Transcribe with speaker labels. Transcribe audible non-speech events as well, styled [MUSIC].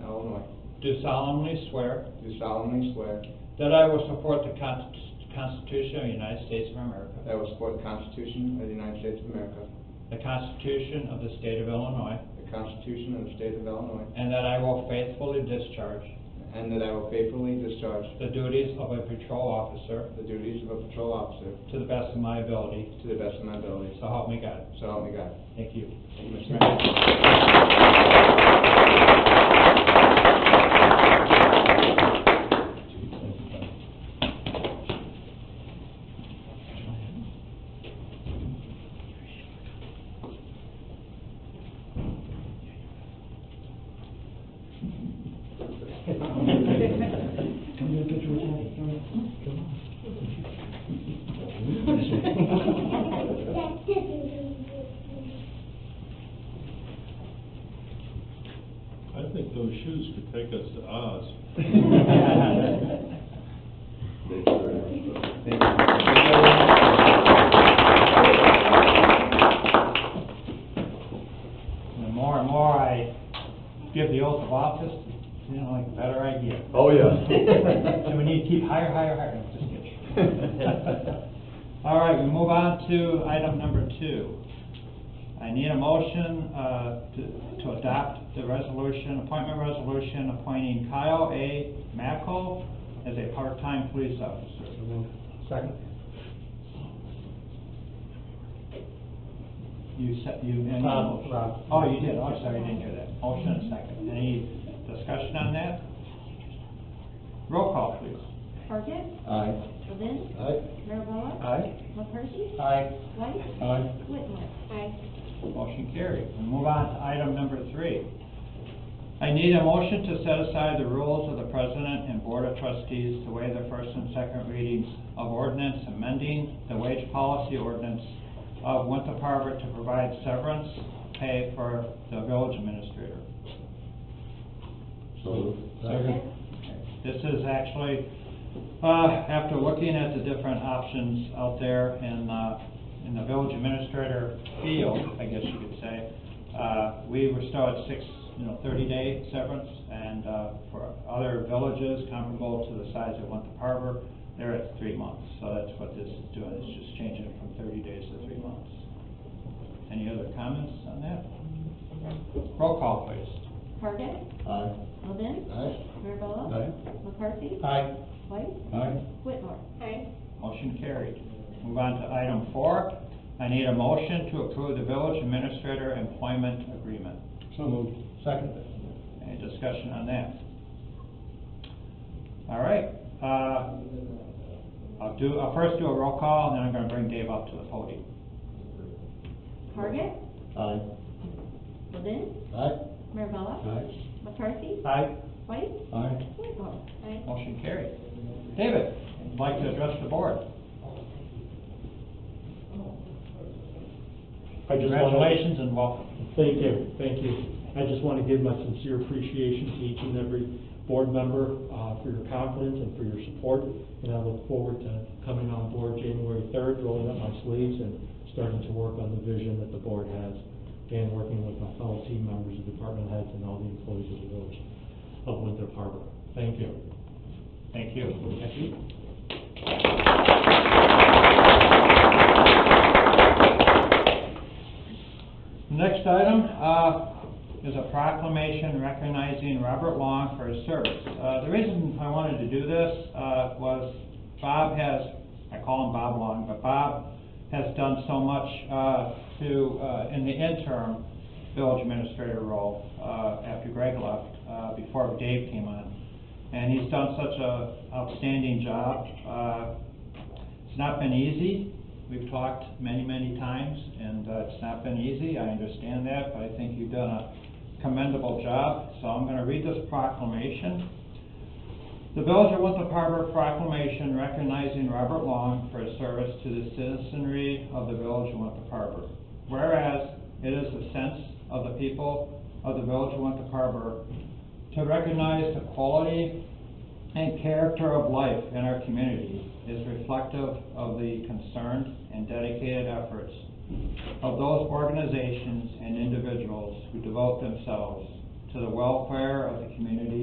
Speaker 1: Illinois,
Speaker 2: do solemnly swear
Speaker 1: do solemnly swear
Speaker 2: that I will support the Con- Constitution of the United States of
Speaker 1: that
Speaker 2: America,
Speaker 1: I will support the Constitution of the United States of America,
Speaker 2: the Constitution of the State of Illinois,
Speaker 1: the Constitution of the State of Illinois,
Speaker 2: and that I will faithfully discharge
Speaker 1: and that I will faithfully discharge
Speaker 2: the duties of a patrol officer
Speaker 1: the duties of a patrol officer
Speaker 2: to the best of my ability,
Speaker 1: to the best of my ability.
Speaker 2: so help me God.
Speaker 1: So help me God.
Speaker 2: Thank you.
Speaker 1: Thank you, Mr. Mayor.
Speaker 3: Come get a picture with Daddy, come on, come on.
Speaker 4: I think those shoes could take us to Oz.
Speaker 1: [LAUGHS] [LAUGHS]
Speaker 2: The more and more I give the oath of office, you know, like, the better I get.
Speaker 5: Oh,
Speaker 2: [LAUGHS] So we
Speaker 5: yeah.
Speaker 2: need to keep higher, higher, higher, No, just
Speaker 5: [LAUGHS]
Speaker 2: kidding. All right, we move on to item number two. I need a motion, uh, to, to adopt the resolution, appointment resolution appointing Kyle A. Mackel as a part-time police officer.
Speaker 3: Second?
Speaker 2: You said, you. any-
Speaker 3: Rob, Rob.
Speaker 2: Oh, you did, oh, sorry, I didn't hear that. Motion and second. Any discussion on that? Roll call, please.
Speaker 6: Parkin?
Speaker 5: Aye.
Speaker 6: Levin?
Speaker 5: Aye.
Speaker 6: Mirabella?
Speaker 3: Aye.
Speaker 6: McCarthy?
Speaker 3: Aye.
Speaker 6: White?
Speaker 5: Aye.
Speaker 6: Whitmore?
Speaker 2: Motion carried. We move on to item number three. I need a motion to set aside the rules of the president and board of trustees to waive the first and second readings of ordinance amending the wage policy ordinance of Winter Harbor to provide severance pay for the village administrator.
Speaker 5: So moved.
Speaker 2: This is actually, uh, after looking at the different options out there in, uh, in the village administrator field, I guess you could say, uh, we were still at six, you know, thirty-day severance, and, uh, for other villages comparable to the size of Winter Harbor, they're at three months, so that's what this is doing, it's just changing it from thirty days to three months. Any other comments on that? Roll call, please.
Speaker 6: Parkin?
Speaker 5: Aye.
Speaker 6: Levin?
Speaker 5: Aye.
Speaker 6: Mirabella?
Speaker 5: Aye.
Speaker 6: McCarthy?
Speaker 3: Aye.
Speaker 6: White?
Speaker 5: Aye.
Speaker 6: Whitmore?
Speaker 2: Motion carried. Move on to item four. I need a motion to approve the village administrator employment agreement.
Speaker 5: So moved. Second.
Speaker 2: Any discussion on that? All right, uh, I'll do, I'll first do a roll call, and then I'm gonna bring Dave up to the podium.
Speaker 6: Parkin?
Speaker 5: Aye.
Speaker 6: Levin?
Speaker 5: Aye.
Speaker 6: Mirabella?
Speaker 5: Aye.
Speaker 6: McCarthy?
Speaker 2: Aye.
Speaker 6: White?
Speaker 5: Aye.
Speaker 6: Whitmore?
Speaker 2: Motion carried. David, would like to address the board.
Speaker 7: I just wanna-
Speaker 2: Congratulations and welcome.
Speaker 7: Thank you, thank you. I just want to give my sincere appreciation to each and every board member uh, for your confidence and for your support, and I look forward to coming on board January 3rd, rolling up my sleeves and starting to work on the vision that the board has, and working with my fellow team members, the department heads, and all the employees of the village of Winthrop Harbor. Thank you.
Speaker 2: Thank you. Thank you. Next item, uh, is a proclamation recognizing Robert Long for his service. Uh, the reason I wanted to do this, uh, was Bob has, I call him Bob Long, but Bob has done so much, uh, to, uh, in the interim village administrator role, uh, after Greg left, uh, before Dave came on. And he's done such a outstanding job. Uh, It's not been easy. We've talked many, many times, and uh, it's not been easy. I understand that, but I think you've done a commendable job. So I'm going to read this proclamation. The Village of Winthrop Harbor proclamation recognizing Robert Long for his service to the citizenry of the Village of Winthrop Harbor. Whereas it is the sense of the people of the Village of Winthrop Harbor to recognize the quality and character of life in our community is reflective of the concerned and dedicated efforts of those organizations and individuals who devote themselves to the welfare of the community